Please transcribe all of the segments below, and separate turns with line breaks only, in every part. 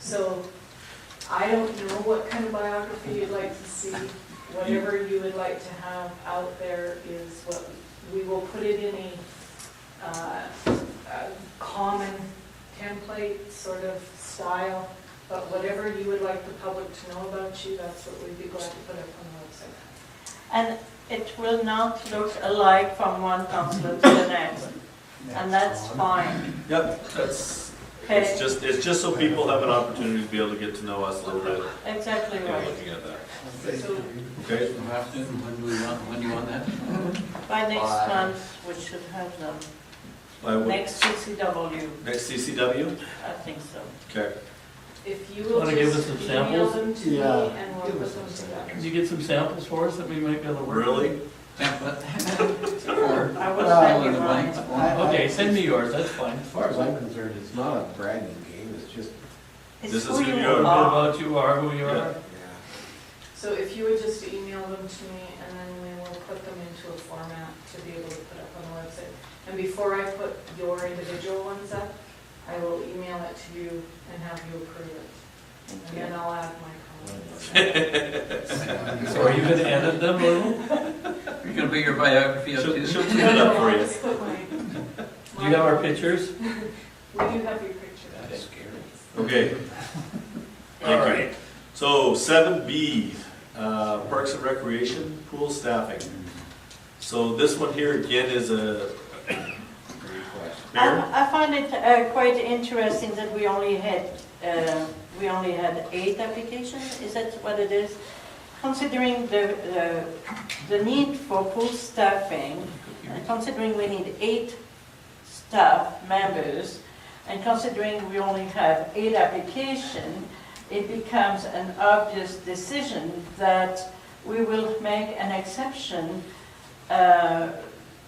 So I don't know what kind of biography you'd like to see. Whatever you would like to have out there is what, we will put it in a, uh, a common template sort of style, but whatever you would like the public to know about you, that's what we'd be glad to put up on the website.
And it will not look alike from one councillor to the next, and that's fine.
Yep, that's,
Okay,
It's just, it's just so people have an opportunity to be able to get to know us a little bit,
exactly
you know,
right.
looking at that.
So-
Okay,
When do we want, when do you want that?
By next
Fine.
month, we should have them.
I would,
Next CCW,
next CCW?
I think so.
Okay,
If you will
Wanna give us
just
some
email
samples?
them to me
Yeah.
and we'll put them together.
Could you get some samples for us that we might be able to work? with?
really?
Template.
I will
Well,
send you
the
mine.
blanks form.
Okay, send me yours, that's fine.
As far as I'm concerned, it's not a bragging game, it's just,
It's
This is
who
who
you
you are.
What
are.
about you are, who you
Yeah.
are?
yeah.
So if you would just email them to me and then we will put them into a format to be able to put up on the website. And before I put your individual ones up, I will email it to you and have you approve it. And then I'll add my comments.
So are you gonna edit them a little?
You're gonna put your biography up
She'll,
too?
she'll clean it up for
I'll
you.
just put my-
Do you have our pictures?
We do have your picture.
That's scary.
Okay. All right, so seven B, uh, Parks and Recreation, pool staffing. So this one here again is a, Mayor?
I I find it uh, quite interesting that we only had, uh, we only had eight applications, is that what it is? Considering the, the- the need for full staffing, and considering we need eight staff members, and considering we only have eight applications, it becomes an obvious decision that we will make an exception uh,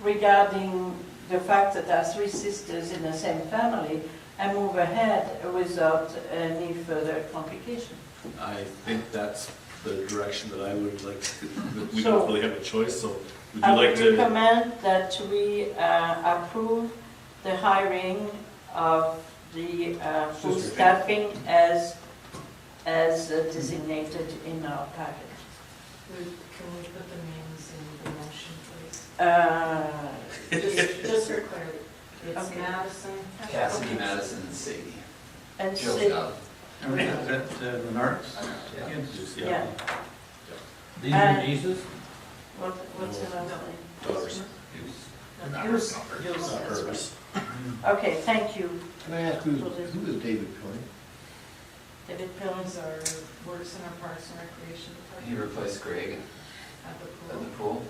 regarding the fact that there are three sisters in the same family and move ahead without any further complication.
I think that's the direction that I would like, to- that we
So- Uh,
don't really have a choice, so would you
I
like
would
to?
recommend that we uh, approve the hiring of the uh, full
Sister.
staffing as, as designated in our package.
We- Can we put the names in the motion, please?
Uh,
Just, just for clarity, it's
Okay.
Madison.
Cassidy, Madison, and Sadie.
And
Jill's
Sid-
out. Is that uh, Menards?
Yeah.
Just,
yeah,
These are
Uh,
nieces?
what, what's the last name?
Dollars.
Yours- yours,
Not
that's
hers.
right. Okay, thank you,
Can I ask who's, who is David Coyne?
David Pillis.
Jones are, works in our Parks and Recreation
He
Department
replaced Greg
at the
at the
pool.
pool.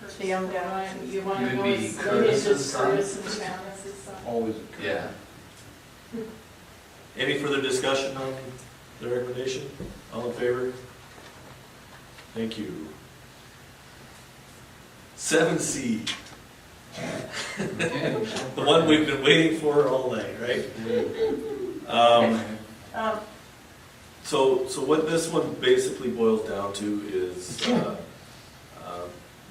Kurt's the young guy, you want to
He
go
would be
as, you
Curtis's
just
son.
Curtis and Janice's son.
Always.
Yeah.
Any further discussion on the recommendation? All in favor? Thank you. Seven C, the one we've been waiting for all night, right? Um,
Um,
So, so what this one basically boils down to is, uh, uh,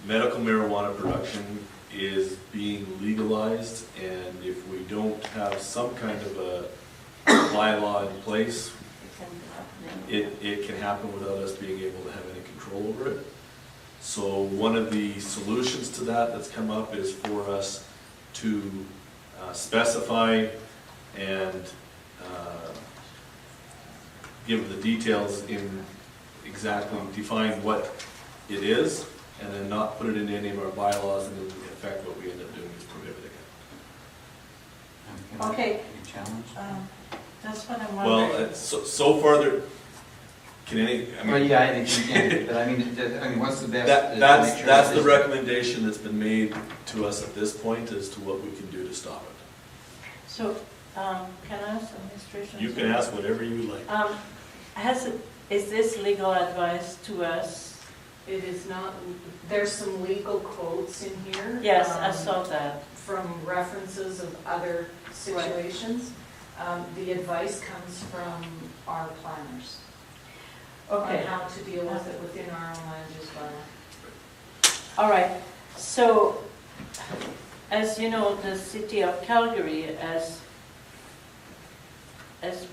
medical marijuana production is being legalized, and if we don't have some kind of a bylaw in place,
it can be happening.
it, it can happen without us being able to have any control over it. So one of the solutions to that that's come up is for us to uh, specify and uh, give the details in exactly, define what it is, and then not put it in any of our bylaws, and in effect, what we end up doing is prohibiting it.
Okay.
Any challenge?
Um, That's what I'm
Well,
wondering.
uh, so, so far, there, can any, I mean.
Well, yeah, I think you can, but I mean, it- it- I mean, what's the best? uh,
That, that's,
nature of
that's the
this?
recommendation that's been made to us at this point as to what we can do to stop it.
So, um, can I ask administration?
You can ask whatever you like.
Um, has, it- is this legal advice to us?
It is not, there's some legal quotes in here.
Yes, I
um,
saw that.
From references of other situations. Um, The advice comes from our planners. On
Okay,
how to deal with it within our own land use bylaw.
all right. So, as you know, the city of Calgary has, has